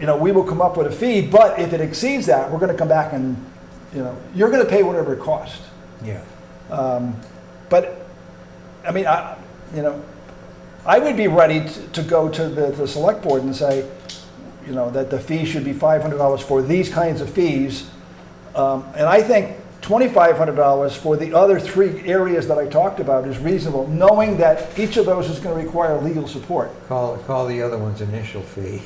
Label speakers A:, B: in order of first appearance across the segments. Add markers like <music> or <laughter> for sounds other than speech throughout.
A: you know, we will come up with a fee, but if it exceeds that, we're gonna come back and, you know, you're gonna pay whatever it costs.
B: Yeah.
A: But, I mean, I, you know, I would be ready to, to go to the, the select board and say, you know, that the fee should be five hundred dollars for these kinds of fees. Um, and I think twenty-five hundred dollars for the other three areas that I talked about is reasonable, knowing that each of those is gonna require legal support.
B: Call, call the other one's initial fee.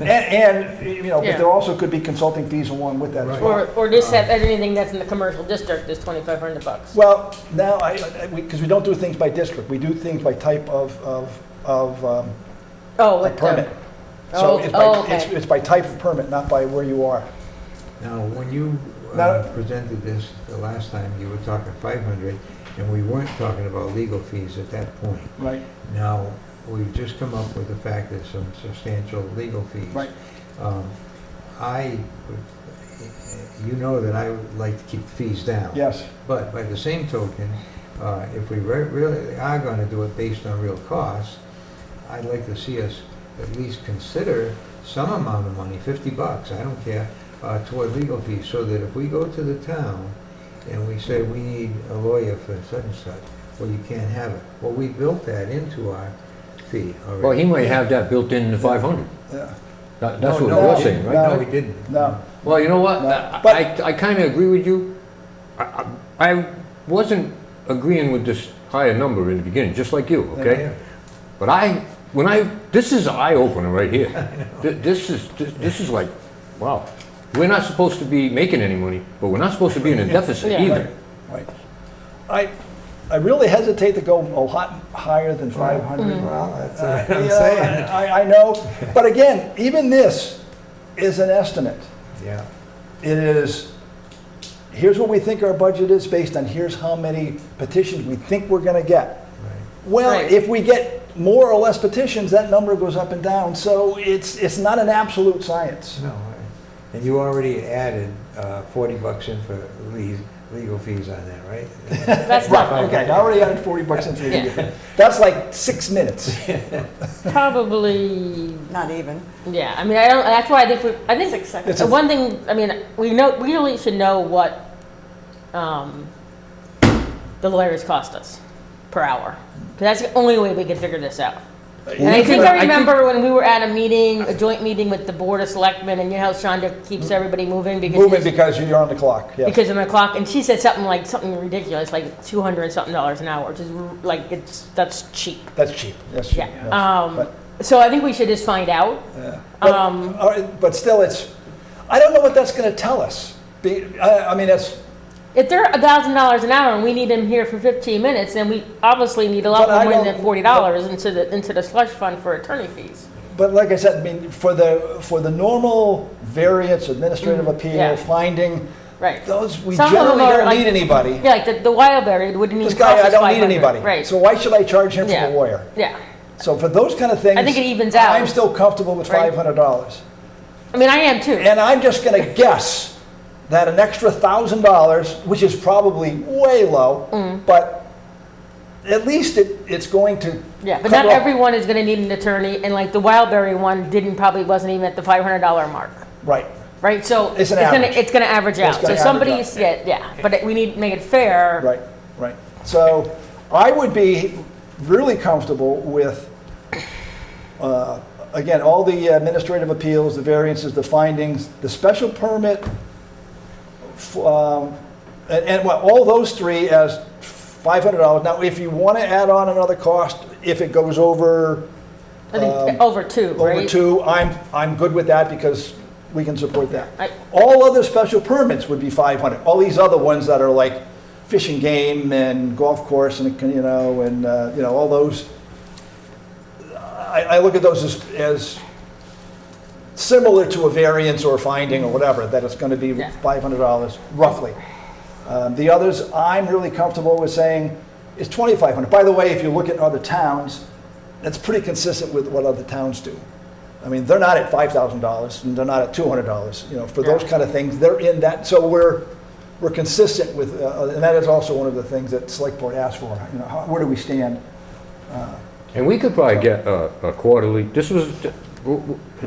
A: And, and, you know, but
C: Yeah.
A: there also could be consulting fees along with that as
B: Right.
A: well.
C: Or, or just have anything that's in the commercial district is twenty-five hundred bucks.
A: Well, now, I, because we, 'cause we don't do things by district, we do things by type of, of, of um,
C: Oh,
A: a
C: with the-
A: permit.
C: Oh,
A: So it's
C: oh,
A: by,
C: okay.
A: it's, it's by type of permit, not by where you are.
B: Now, when you uh,
A: Now-
B: presented this the last time, you were talking 500, and we weren't talking about legal fees at that point.
A: Right.
B: Now, we've just come up with the fact that some substantial legal fees.
A: Right.
B: Um, I, would- you know that I would like to keep fees down.
A: Yes,
B: But by the same token, uh, if we re- really are going to do it based on real costs, I'd like to see us at least consider some amount of money, 50 bucks, I don't care, uh, toward legal fees, so that if we go to the town and we say, we need a lawyer for such and such, well, you can't have it. Well, we built that into our fee already.
D: Well, he might have that built in the 500.
A: yeah.
D: That- That's
B: No,
D: what
B: no,
D: we're
B: we
D: saying,
B: didn't.
D: right?
B: No, we didn't.
A: No,
D: Well, you know what?
A: No,
D: I-
A: but-
D: I, I kind of agree with you. I, I I wasn't agreeing with this higher number in the beginning, just like you,
B: Yeah.
D: okay? But I, when I, this is an eye opener right
B: <laughs>
D: here. Th- This is, this this is like, wow. We're not supposed to be making any money, but we're not supposed to be in
B: <laughs>
D: a deficit
C: Yeah.
D: either.
A: right. I, I really hesitate to go a lot higher than five hundred.
C: Mm-hmm.
B: Well, that's what Mm-hmm. <laughs> I'm
A: Yeah,
B: saying.
A: I, I know, but again, even this is an estimate.
B: Yeah,
A: It is, here's what we think our budget is based on, here's how many petitions we think we're gonna get.
B: right.
A: Well,
C: Right.
A: if we get more or less petitions, that number goes up and down, so it's, it's not an absolute science.
B: No, I- and you already added uh, 40 bucks in for le- legal fees on that, right?
C: That's
A: Right,
C: not,
A: okay, I already added forty bucks into
C: Yeah.
A: the, <laughs> that's like six
C: <laughs>
A: minutes.
C: probably,
E: Not even.
C: yeah, I mean, I don't, that's why I think we, I think.
E: Six seconds.
A: It's a-
C: The one thing, I mean, we know, we really should know what, um, the lawyers cost us per hour. 'Cause that's the only way we can figure this out. And I think I remember when we were at a meeting, a joint meeting with the Board of Selectmen, and you know how Shonda keeps everybody moving because.
A: Moving because you're on the clock, yes.
C: because of my clock, and she said something like something ridiculous, like two hundred something dollars an hour, which is r- like it's that's cheap.
A: That's cheap, that's cheap.
C: Yeah.
A: yes.
C: Um,
A: But-
C: So I think we should just find out.
A: But,
C: Um,
A: all right, but still, it's, I don't know what that's gonna tell us. Be- I, I mean, that's,
C: If they're a thousand dollars an hour and we need them here for fifteen minutes, then we obviously need a
A: But
C: lot
A: I
C: more
A: don't-
C: than forty dollars into the into the slush fund for attorney fees.
A: But like I said, I mean, for the, for the normal variance, administrative appeal,
C: Mm-hmm. yeah.
A: finding,
C: Right.
A: those, we
C: Some of them
A: generally
C: are
A: don't
C: like-
A: need anybody.
C: Yeah, like the, the Wildberry wouldn't
A: This
C: even
A: guy,
C: cost
A: I
C: us
A: don't need
C: 500,
A: anybody.
C: Right.
A: So why should I charge him for
C: Yeah.
A: a lawyer?
C: yeah.
A: So for those kind of things.
C: think it evens out.
A: I'm still comfortable with
C: Right.
A: five hundred dollars.
C: I mean I am too.
A: And I'm just gonna guess that an extra thousand dollars, which is probably way low,
C: Mm.
A: but at least it, it's going to.
C: Yeah, but
A: cover
C: not
A: up.
C: everyone is going to need an attorney, and like the Wildberry one didn't probably wasn't even at the five hundred dollar mark,
A: Right.
C: right? So
A: It's an
C: gonna
A: average.
C: it's going to average
A: It's
C: out.
A: gonna average
C: So somebody's yeah, yeah, but it, we need to make it fair.
A: Right, right. So I would be really comfortable with, uh, again, all the administrative appeals, the variances, the findings, the special permit, f- um, and, and well, all those three as $500. Now, if you want to add on another cost, if it goes over,
C: I think
A: Um,
C: over two, right?
A: over two, I'm, I'm good with that because we can support
C: I-
A: that. All other special permits would be 500. All these other ones that are like fish and game and golf course and, you know, and, uh, you know, all those. I, I look at those as, as similar to a variance or a finding or whatever, that it's going to be
C: Yeah.
A: $500 roughly. Um, The others, I'm really comfortable with saying is 2,500. By the way, if you look at other towns, that's pretty consistent with what other towns do. I mean, they're not at $5,000 and they're not at $200, you know, for those
C: Yeah.
A: kind of things, they're in that, so we're, we're consistent with, uh, and that is also one of the things that select board asks for, you know, how- where do we stand?
D: And we could probably get a a quarterly, this was,